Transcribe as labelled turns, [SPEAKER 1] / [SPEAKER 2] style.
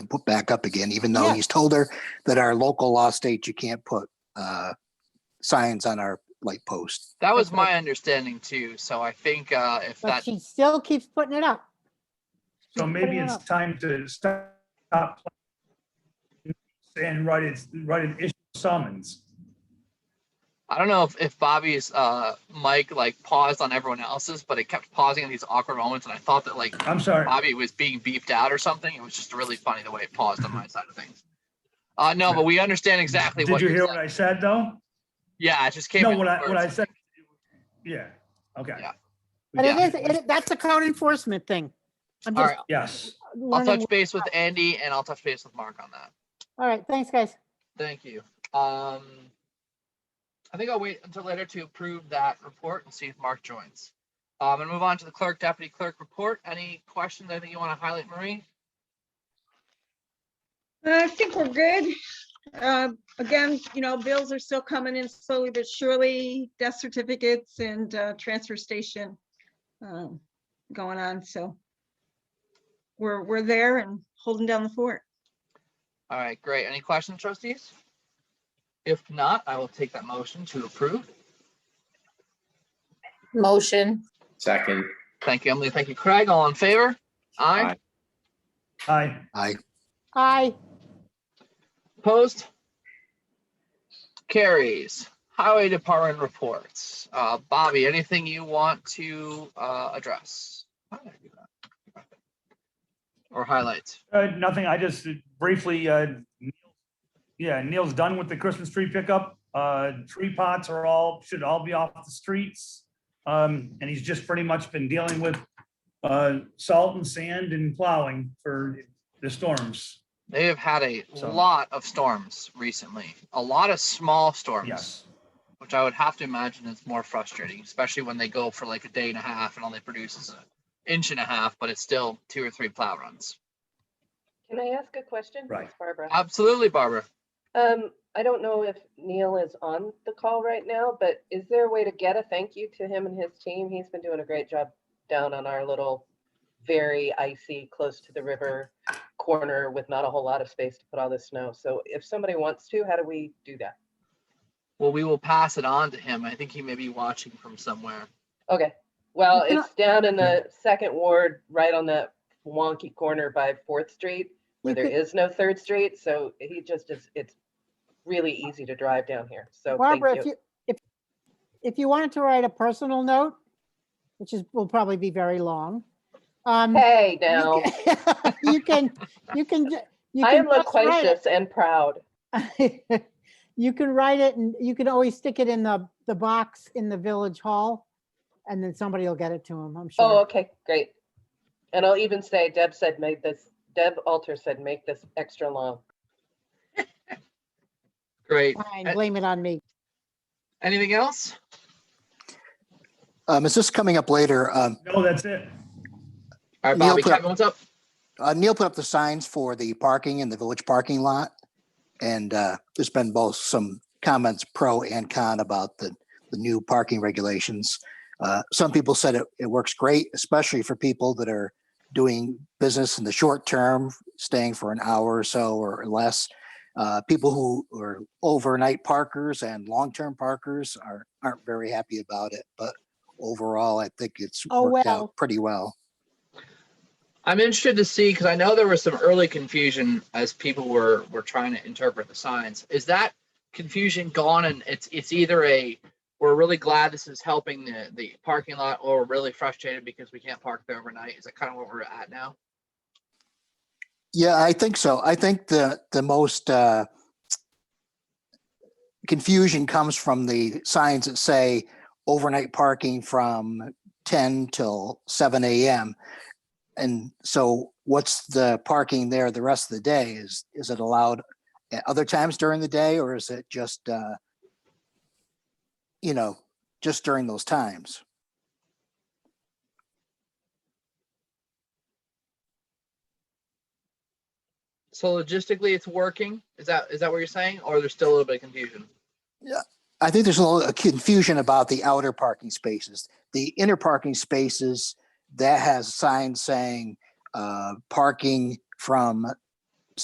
[SPEAKER 1] put back up again, even though
[SPEAKER 2] Yeah.
[SPEAKER 1] he's told her that our local law states you can't put uh, signs on our light post.
[SPEAKER 3] That was
[SPEAKER 2] Okay.
[SPEAKER 3] my understanding too, so I think uh, if
[SPEAKER 2] But
[SPEAKER 3] that,
[SPEAKER 2] she still keeps putting it up.
[SPEAKER 4] So
[SPEAKER 2] Keeps
[SPEAKER 4] maybe
[SPEAKER 2] putting it
[SPEAKER 4] it's
[SPEAKER 2] up.
[SPEAKER 4] time to stop and write it, write an issue summons.
[SPEAKER 3] I don't know if, if Bobby's uh, mic like paused on everyone else's, but it kept pausing in these awkward moments and I thought that like
[SPEAKER 4] I'm sorry.
[SPEAKER 3] Bobby was being beeped out or something. It was just really funny the way it paused on my side of things. Uh, no, but we understand exactly what
[SPEAKER 4] Did you
[SPEAKER 3] you're
[SPEAKER 4] hear what
[SPEAKER 3] saying.
[SPEAKER 4] I said, though?
[SPEAKER 3] Yeah, it just came.
[SPEAKER 4] No,
[SPEAKER 3] in
[SPEAKER 4] what I, what I
[SPEAKER 3] words.
[SPEAKER 4] said, yeah, okay.
[SPEAKER 3] Yeah.
[SPEAKER 2] But it
[SPEAKER 3] Yeah.
[SPEAKER 2] is, it, that's a code enforcement thing. I'm
[SPEAKER 3] All
[SPEAKER 2] just
[SPEAKER 4] Yes,
[SPEAKER 3] I'll
[SPEAKER 2] learning.
[SPEAKER 3] touch base with Andy and I'll touch base with Mark on that.
[SPEAKER 2] All right, thanks, guys.
[SPEAKER 3] Thank you. Um, I think I'll wait until later to approve that report and see if Mark joins. Um, I'm gonna move on to the clerk, deputy clerk report. Any questions I think you want to highlight, Marie?
[SPEAKER 5] Uh, I think we're good. Uh, Again, you know, bills are still coming in slowly but surely, death certificates and uh, transfer station um, going on, so we're, we're there and holding down the fort.
[SPEAKER 3] All right, great. Any questions, trustees? If not, I will take that motion to approve.
[SPEAKER 6] Motion,
[SPEAKER 7] Second,
[SPEAKER 3] Thank you, Emily. Thank you, Craig. All in favor? Aye.
[SPEAKER 7] Aye.
[SPEAKER 4] I,
[SPEAKER 1] I,
[SPEAKER 2] Aye.
[SPEAKER 3] Opposed? Carries. Highway Department reports. Uh, Bobby, anything you want to, uh, address? Why did I do that? Or highlights?
[SPEAKER 4] uh, nothing, I just briefly, uh, Neil- yeah, Neil's done with the Christmas tree pickup. Uh, tree pots are all, should all be off the streets. Um, and he's just pretty much been dealing with, uh, salt and sand and plowing for the storms.
[SPEAKER 3] They have had a
[SPEAKER 4] So-
[SPEAKER 3] lot of storms recently, a lot of small storms,
[SPEAKER 4] Yes,
[SPEAKER 3] which I would have to imagine is more frustrating, especially when they go for like a day and a half and all they produce is an inch and a half, but it's still two or three plow runs.
[SPEAKER 8] Can I ask a question?
[SPEAKER 4] Right.
[SPEAKER 8] It's Barbara.
[SPEAKER 3] Absolutely, Barbara.
[SPEAKER 8] Um, I don't know if Neil is on the call right now, but is there a way to get a thank you to him and his team? He's been doing a great job down on our little very icy, close to the river corner with not a whole lot of space to put all this snow. So if somebody wants to, how do we do that?
[SPEAKER 3] Well, we will pass it on to him. I think he may be watching from somewhere.
[SPEAKER 8] Okay, well,
[SPEAKER 2] can
[SPEAKER 8] it's down in the second ward, right on that wonky corner by Fourth Street. where
[SPEAKER 2] You
[SPEAKER 8] there
[SPEAKER 2] could-
[SPEAKER 8] is no third street, so he just is, it's really easy to drive down here, so thank
[SPEAKER 2] Barbara, if
[SPEAKER 8] you.
[SPEAKER 2] you, if, if you wanted to write a personal note, which is, will probably be very long. um, you
[SPEAKER 8] Hey, now,
[SPEAKER 2] ca- You can, you can. ju- you
[SPEAKER 8] I
[SPEAKER 2] can
[SPEAKER 8] am
[SPEAKER 2] just write it.
[SPEAKER 8] loquacious and proud.
[SPEAKER 2] You can write it and you can always stick it in the, the box in the village hall. And then somebody will get it to him, I'm sure.
[SPEAKER 8] Oh, okay, great. And I'll even say Deb said made this, Deb Alter said make this extra long.
[SPEAKER 3] Great.
[SPEAKER 2] Fine, blame it on me.
[SPEAKER 3] Anything else?
[SPEAKER 1] um, is this coming up later? Um,
[SPEAKER 4] no, that's it.
[SPEAKER 3] All right,
[SPEAKER 1] Neil
[SPEAKER 3] Bobby,
[SPEAKER 1] put up-
[SPEAKER 3] Kevin, what's up?
[SPEAKER 1] uh, Neil put up the signs for the parking in the village parking lot. And uh, there's been both some comments pro and con about the, the new parking regulations. Uh, Some people said it, it works great, especially for people that are doing business in the short term, staying for an hour or so or less. Uh, People who are overnight parkers and long-term parkers are, aren't very happy about it. But overall, I think it's
[SPEAKER 2] Oh,
[SPEAKER 1] worked
[SPEAKER 2] well.
[SPEAKER 1] out pretty well.
[SPEAKER 3] I'm interested to see, because I know there was some early confusion as people were, were trying to interpret the signs. Is that confusion gone and it's, it's either a, we're really glad this is helping the, the parking lot or we're really frustrated because we can't park there overnight? Is that kind of what we're at now?
[SPEAKER 1] Yeah, I think so. I think the, the most uh, confusion comes from the signs that say overnight parking from 10 till 7 a.m. And so what's the parking there the rest of the day? Is, is it allowed at other times during the day or is it just, uh, you know, just during those times?
[SPEAKER 3] So logistically, it's working? Is that, is that what you're saying? Or there's still a little bit of confusion?
[SPEAKER 1] I think there's a little confusion about the outer parking spaces. The inner parking spaces, that has signs saying, uh, parking from